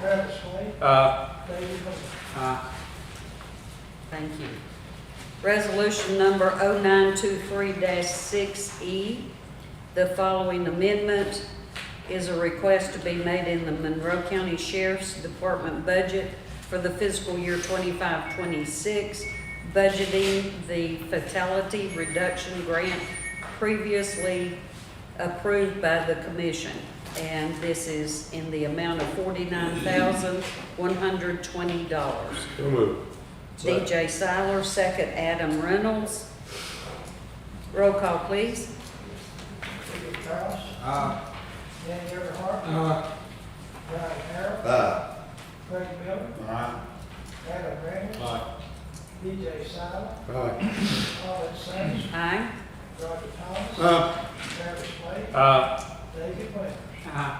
Travis Slade, Uh, David Holt. uh, Thank you. Resolution number 0923-6E. E. The following amendment is a request to be made in the Monroe County Sheriff's Department budget for the fiscal year 25-26, budgeting the fatality reduction grant previously approved by the commission. And this is in the amount of $49,120. So moved. DJ Siler, second Adam Reynolds. Roll call, please. David Kraus, uh, Danny Everhart, uh, Brian Harrell, Aye. Craig Miller, Adam Reynolds, Aye. DJ Silent, Aye. Paulette Sands, Aye. Roger Thomas, Aye. Travis Slade, uh, David Winters. uh,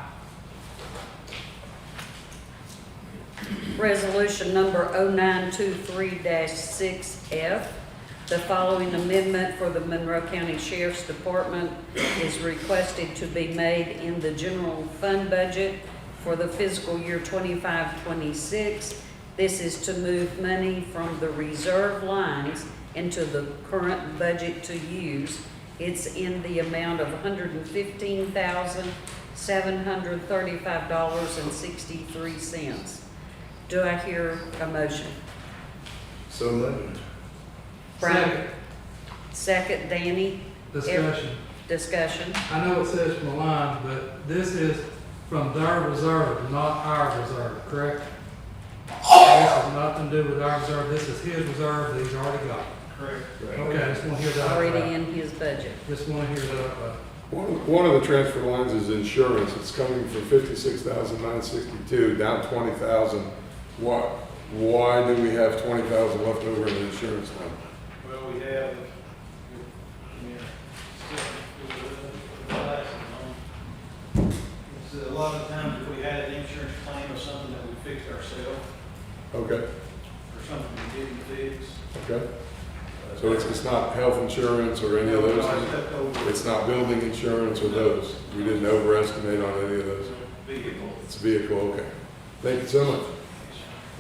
Resolution number 0923-6F. The following amendment for the Monroe County Sheriff's Department is requested to be made in the general fund budget for the fiscal year 25-26. This is to move money from the reserve lines into the current budget to use. It's in the amount of $115,735.63. Do I hear a motion? So moved. Brian? Second, Danny, discussion. discussion. I know it says from the line, but this is from their reserve, not our reserve, correct? This has nothing to do with our reserve, this is his reserve that he's already got. Correct. Okay, I just want to hear that. Already in his budget. Just want to hear that. uh, One of, one of the transfer lines is insurance. It's coming from fifty-six thousand nine sixty-two, down twenty thousand. Why, why do we have twenty thousand left over in the insurance line? Well, we have, uh, I mean, it's a lot of times if we had an insurance claim or something that we fixed ourselves, Okay, or something we didn't fix. okay. So it's, it's not health insurance or any of No, it's those? left over It's not building insurance or those? We didn't overestimate on any of those? Vehicle. It's vehicle, okay. Thank you so much.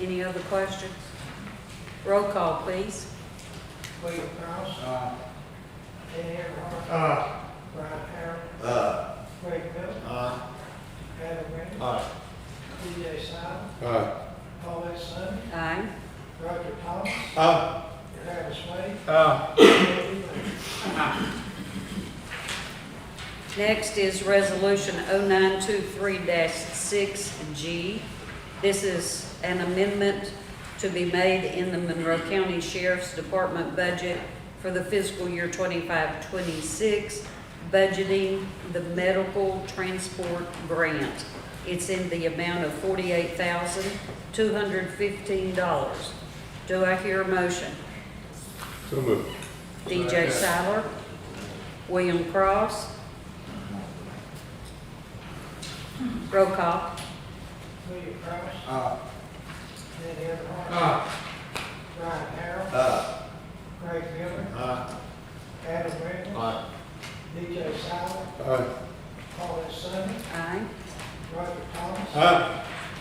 Any other questions? Roll call, please. William Kraus, uh, Danny Everhart, uh, Brian Harrell, Aye. Craig Miller, Aye. Adam Reynolds, Aye. DJ Silent, Aye. Paulette Sands, Aye. Roger Thomas, Aye. Travis Slade, uh, David Winters. Next is Resolution 0923-6G. This is an amendment to be made in the Monroe County Sheriff's Department budget for the fiscal year 25-26, budgeting the medical transport grant. It's in the amount of $48,215. Do I hear a motion? So moved. DJ Siler, William Cross. Roll call. William Kraus, uh, Danny Everhart, Ah, Brian Harrell, Aye. Craig Miller, Aye. Adam Reynolds, Aye. DJ Silent, Aye. Paulette Sands, Aye. Roger Thomas, Aye.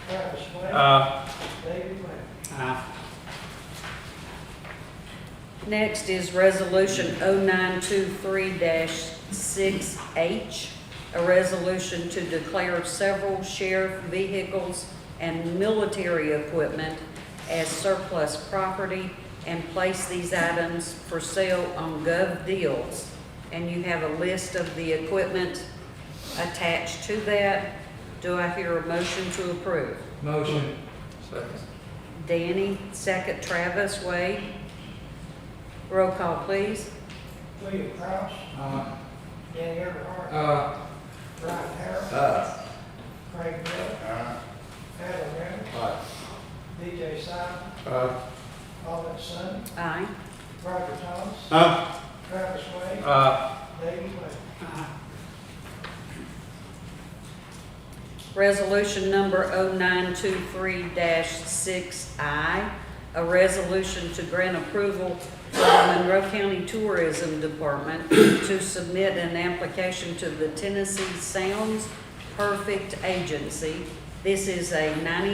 Travis Slade, uh, David Winters. uh, Next is Resolution 0923-6H, a resolution to declare several sheriff vehicles and military equipment as surplus property and place these items for sale on Gov. Deals. And you have a list of the equipment attached to that. Do I hear a motion to approve? motion. Danny, second Travis, Wade. Roll call, please. William Kraus, Uh, Danny Everhart, uh, Brian Harrell, Aye. Craig Miller, Aye. Adam Reynolds, Uh. Aye. DJ Simon, Aye. Paulette Sands, Aye. Roger Thomas, Aye. Travis Wade, uh, David Winters. Resolution number 0923-6I, a resolution to grant approval to the Monroe County Tourism Department to submit an application to the Tennessee Sounds Perfect Agency. This is a 90